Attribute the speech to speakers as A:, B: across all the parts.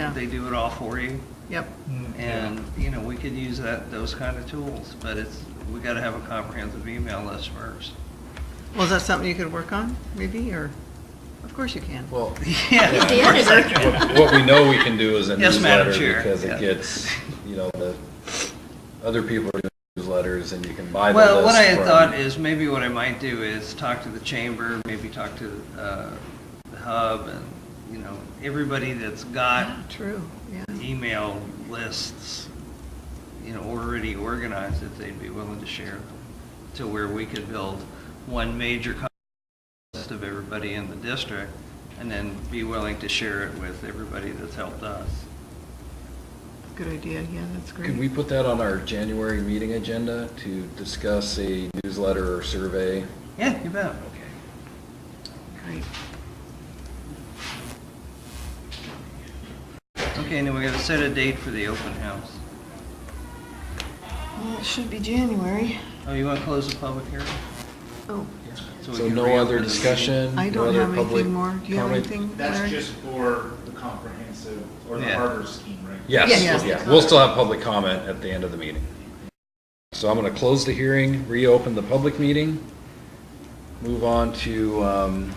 A: Yeah.
B: They do it all for you.
A: Yep.
B: And, you know, we could use that, those kind of tools, but it's, we gotta have a comprehensive email list first.
A: Well, is that something you could work on, maybe, or, of course you can.
C: Well,
B: Yeah.
D: The editor.
C: what what we know we can do is a
B: Yes, Madam
C: newsletter
B: Chair,
C: because
B: yeah.
C: it gets, you know, the, other people are doing newsletters and you can buy the list.
B: Well, what I had
C: from-
B: thought is maybe what I might do is talk to the chamber, maybe talk to, uh, the hub and, you know, everybody that's
C: Uh,
B: got
A: Yeah, True, yeah.
B: email lists, you know, already organized, if they'd be willing to share them, to where we could build one major contact list of everybody in the district, and then be willing to share it with everybody that's helped us.
A: Good idea, yeah, that's
C: Can we
A: great.
C: put that on our January meeting agenda to discuss a newsletter or survey?
B: Yeah, you bet.
A: Great.
B: Okay, and then we gotta set a date for the open house.
A: Well, it should be January.
B: Oh, you wanna close the public hearing?
A: Oh,
B: we
C: So
B: can
C: no
B: reopen
C: other
B: the meeting?
C: discussion?
A: I
C: no
A: don't
C: other
A: have
C: public
A: anything more. Do you have
C: comment?
A: anything,
E: That's
A: Larry?
E: just for the comprehensive, or the
B: Yeah.
E: harbor scheme, right?
C: Yes,
A: Yes.
C: yeah, we'll still have public comment at the end of the meeting. So I'm going to close the hearing, reopen the public meeting, move on to um,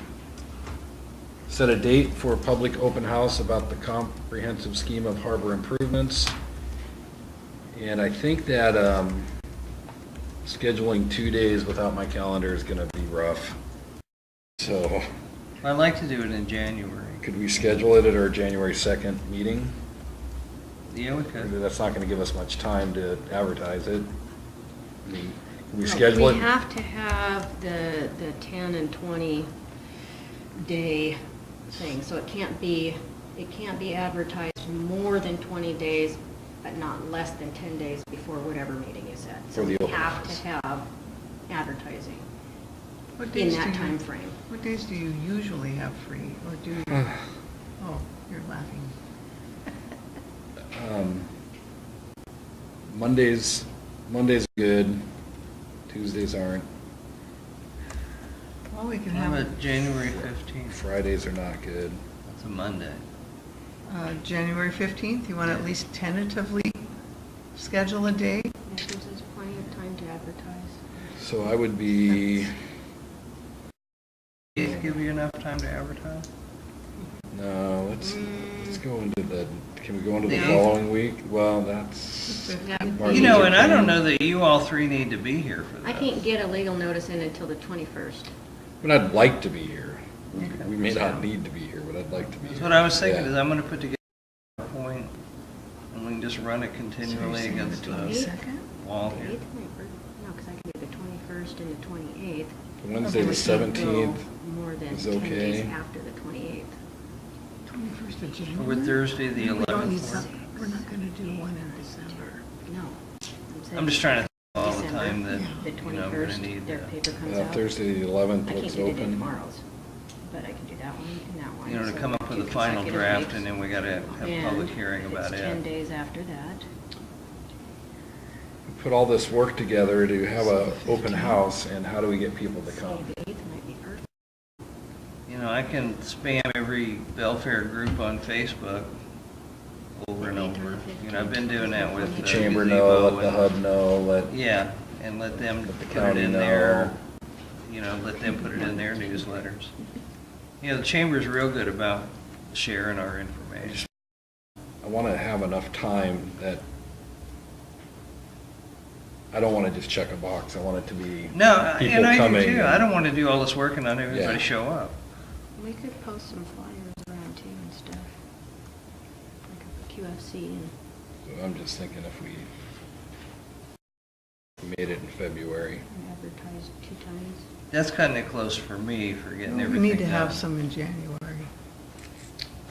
C: set a date for a public open house about the comprehensive scheme of harbor improvements. And I think that um, scheduling two days without my calendar is going to be rough. So
B: I'd like to do it in January.
C: could we schedule it at our January 2nd meeting?
B: Yeah, we
C: Maybe
B: could.
C: That's not gonna give us much time to advertise it. I mean, Can we
D: No,
C: schedule
D: We
C: it?
D: have to have the, the 10 and 20 day thing, so it can't be, it can't be advertised more than 20 days, but not less than 10 days before whatever meeting is at.
C: For
D: So
C: the
D: we
C: open
D: have
C: house.
D: to have advertising
A: What
D: in
A: days do
D: that
A: you-
D: time frame.
A: What days do you usually have free, or do you? Oh, you're laughing.
C: Um, Mondays, Mondays are good, Tuesdays aren't,
A: Well, we can
B: I'm
A: have
B: at
A: it,
B: January fifteenth.
C: Fridays are not good.
B: That's a Monday.
A: uh, January 15th. You want to at least tentatively schedule a day?
D: This is plenty of time to advertise.
C: So I would be,
B: Does it give you enough time to advertise?
C: no, let's, let's go into the, can we go into the
B: The eighth?
C: following week? Well, that's. Martin
B: You know,
C: Luther
B: and I don't
C: King.
B: know that you all three need to be here for that.
D: I can't get a legal notice in until the 21st.
C: But I'd like to be here. We-
B: Okay.
C: We may not need to be here, but I'd like to be here.
B: That's what I was thinking,
C: Yeah.
B: is I'm gonna put together a point, and we can just run it continually against
C: Uh,
B: the
A: 22nd?
B: wall
D: The
B: here.
D: 8th might work. No, because I can do the 21st and the 28th.
A: Okay,
C: Wednesday, the
A: so we'll
C: seventeenth
D: More than
C: is
D: 10 days
C: okay.
D: after the 28th.
A: 21st of
B: Or
A: January?
B: Thursday, the
A: We don't need
B: eleventh.
A: some- We're not going to do one in December.
D: No. saying
B: I'm just trying to think of all the
D: December,
B: time that,
D: The
B: you know, we're gonna
D: 21st,
B: need
D: their
B: that.
D: paper comes
C: Uh,
D: out.
C: Thursday, the eleventh
D: I can't
C: looks
D: do it in
C: open.
D: tomorrows, but I can do that one and that one.
B: You know, to
D: so
B: come up with
D: two
B: a final
D: consecutive
B: draft,
D: weeks.
B: and then we gotta have a
D: And
B: public hearing
D: if
B: about
D: it's 10
B: it.
D: days after that.
C: Put all this work together to have
D: So
C: a
D: the
C: open
D: 15th.
C: house, and how do we get people to come?
D: The 8th might be perfect.
B: You know, I can spam every Belfair group on Facebook over and over. You know, I've been doing that with.
D: The
C: The
B: uh,
C: chamber
B: Gazebo
C: know, let the
B: and-
C: hub know, let,
B: Yeah, and let them
C: Let the
B: put it
C: county
B: in their,
C: know.
B: you know, let them put it in their newsletters. You know, the chamber's real good about sharing our information.
C: I want to have enough time that I don't want to just check a box. I want it to be
B: No, I-
C: people
B: and I do
C: coming.
B: too. I don't want to do all this work and not have everybody
C: Yeah.
B: show up.
D: We could post some flyers around too and stuff. Like a QFC and.
C: So I'm just thinking if we made it in February.
D: I advertised two times.
B: That's kind of close for me for getting
A: We
B: everything done.
A: need to have some in January.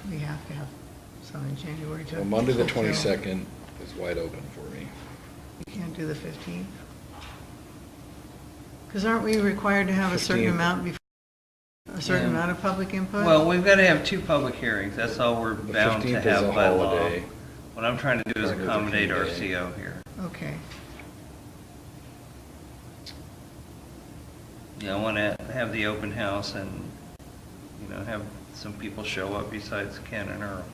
A: We have to have some in January to.
C: Well, Monday, the
A: fulfill.
C: twenty-second is wide open for me.
A: We Can't do the 15th. Because aren't we required to have a certain
C: 15th.
A: amount, bef- a certain
B: Yeah.
A: amount of public input?
B: Well, we've got to have two public hearings. That's all we're
C: The
B: bound to
C: 15th is a
B: have by law.
C: holiday.
B: What I'm trying to do is
C: Martin Luther
B: accommodate
C: King
B: our
C: Day.
B: CO here.
A: Okay,
B: You know, I want to have the open house and, you know, have some people show up besides Ken and Earl.